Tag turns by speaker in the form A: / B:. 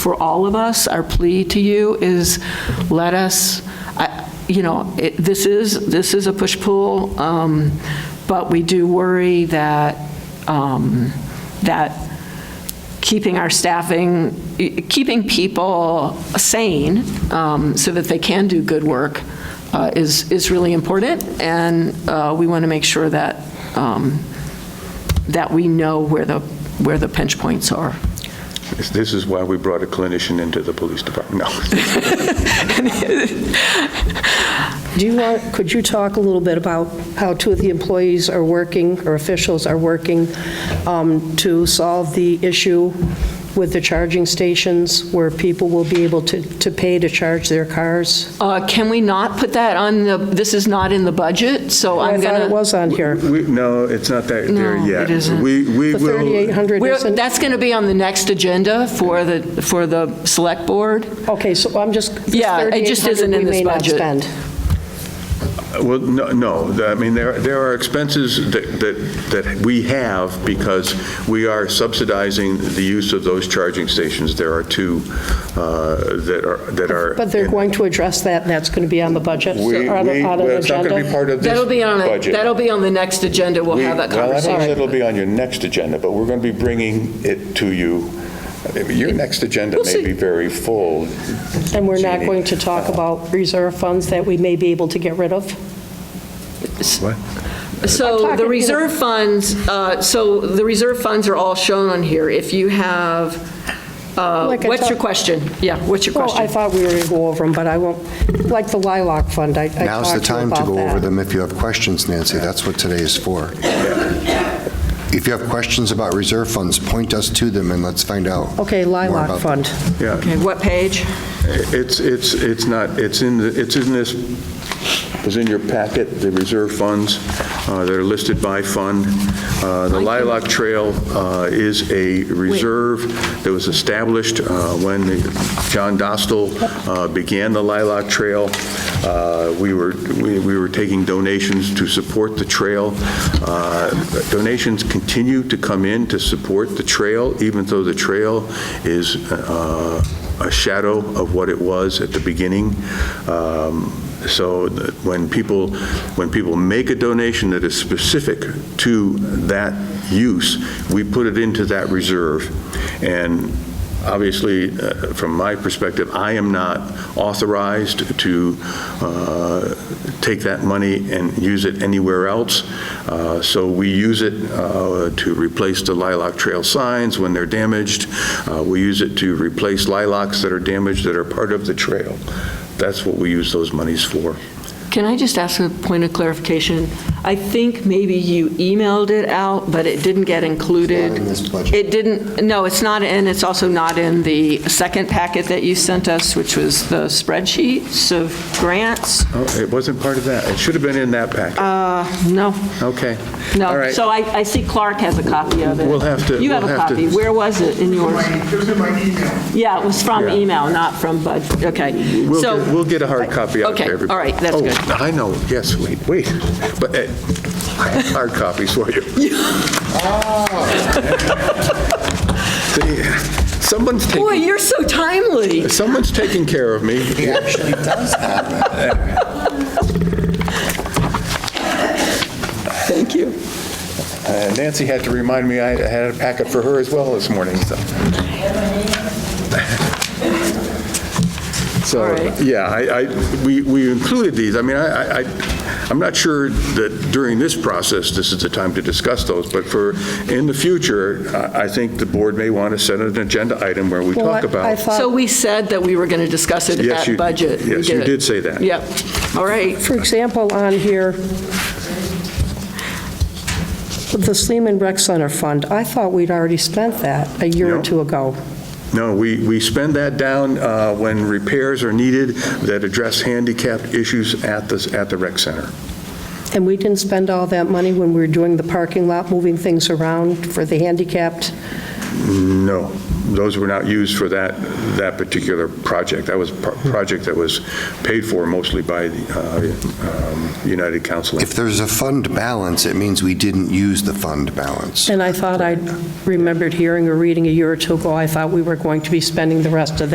A: for all of us, our plea to you is let us, I- you know, it- this is, this is a push-pull, um, but we do worry that, um, that keeping our staffing, keeping people sane um, so that they can do good work uh, is, is really important, and uh, we want to make sure that, um, that we know where the, where the pinch points are.
B: This- This is why we brought a clinician into the police department. No.
C: Do you want, could you talk a little bit about how two of the employees are working, or officials are working, um, to solve the issue with the charging stations, where people will be able to to pay to charge their cars?
A: Uh, Can we not put that on the, this is not in the budget, so
C: I
A: I'm gonna.
C: thought it was on here.
B: We- No, it's not that there
A: No,
B: yet.
A: it isn't.
B: We, we
C: The
B: will,
C: 3,800
A: We're-
C: isn't?
A: That's gonna be on the next agenda for the, for the select board.
C: Okay, so I'm just,
A: Yeah, it just isn't
C: 3,800
A: in
C: we
A: this
C: may not
A: budget.
C: spend.
B: uh, well, no, no, The- I mean, there, there are expenses that, that, that we have because we are subsidizing the use of those charging stations. There are two uh, that are, that are.
C: But they're going to address that, and that's going to be on the budget,
B: We- we-
C: or on on
B: well,
C: an
B: It's not going to be
C: agenda?
B: part of this budget.
A: That'll be on, a- that'll be on the next agenda, we'll
B: We-
A: have that
B: Well, I don't know if
A: conversation.
B: it'll be on your next agenda, but we're going to be bringing it to you. I mean, Your next agenda
A: We'll
B: may
A: see.
B: be very full.
C: And we're not
B: Jeannie.
C: going to talk about reserve funds that we may be able to get rid of?
B: What?
A: So
C: I'm
A: the
C: talking, you know-
A: reserve funds, uh, so the reserve funds are all shown on here. If you have, uh,
C: Like I
A: what's your
C: talk-
A: question? Yeah, what's your
C: Well, I
A: question?
C: thought we were going to go over them, but I won't, like the lilac fund, I I talked to you about
D: Now's the time to go over
C: that.
D: them if you have questions, Nancy. That's what today is for. If you have questions about reserve funds, point us to them and let's find out.
C: Okay,
D: more about
C: lilac
D: them.
C: fund.
B: Yeah,
A: Okay, what page?
B: it's, it's, it's not, it's in, the- it's in this, it's in your packet, the reserve funds uh, that are listed by fund. Uh, The Lilac Trail uh, is a reserve that was established uh, when the- John Dostal uh, began the Lilac Trail. Uh, We were, we we were taking donations to support the trail. Uh, Donations continue to come in to support the trail, even though the trail is uh, a shadow of what it was at the beginning. Um, So that when people, when people make a donation that is specific to that use, we put it into that reserve. And obviously, uh, from my perspective, I am not authorized to uh, take that money and use it anywhere else. Uh, So we use it uh, to replace the Lilac Trail signs when they're damaged. Uh, We use it to replace lilacs that are damaged that are part of the trail. That's what we use those monies for.
A: Can I just ask a point of clarification? I think maybe you emailed it out, but it didn't get included.
D: It's not in this budget.
A: It didn't, no, it's not, and it's also not in the second packet that you sent us, which was the spreadsheets of grants.
B: Oh, It wasn't part of that. It should have been in that packet.
A: No,
B: Okay.
A: Uh,
B: All
A: no.
B: right.
A: So I, I see Clark has a copy of it.
B: We'll have to-
A: You have
B: we'll
A: a
B: have to-
A: copy. Where was it in yours?
E: It was in my email.
A: Yeah, it was from
B: Yeah.
A: email, not from Bud, okay.
B: We'll
A: So-
B: get- we'll get a hard copy out to
A: Okay, all
B: everybody.
A: right, that's good.
B: Oh, I know, yes, wait, wait. But eh, I have hard copies for you. See, Someone's
A: Boy,
B: taking,
A: you're so timely.
B: someone's taking care of me.
D: He actually does have it.
A: Thank you.
B: Uh, Nancy had to remind me I had a packet for her as well this morning, so.
A: All
B: So,
A: right.
B: yeah, I, I, we, we included these. I mean, I, I, I'm not sure that during this process, this is the time to discuss those, but for, in the future, I, I think the board may want to set an agenda item where we
C: Well,
B: talk
C: I- I
B: about.
C: thought-
A: So we said that we were going to discuss it
B: Yes, you-
A: at budget. We
B: yes, you
A: it.
B: did say that.
A: Yep. All right.
C: For example, on here, the Sleeman Rec Center Fund, I thought we'd already spent that a year
B: No.
C: or two ago.
B: No, we, we spend that down uh, when repairs are needed that address handicapped issues at the, at the rec center.
C: And we didn't spend all that money when we were doing the parking lot, moving things around for the handicapped?
B: No, those were not used for that, that particular project. That was a pro- project that was paid for mostly by the uh, um, United Counseling.
D: If there's a fund balance, it means we didn't use the fund balance.
C: And I thought I remembered hearing or reading a year or two ago, I thought we were going to be spending the rest of that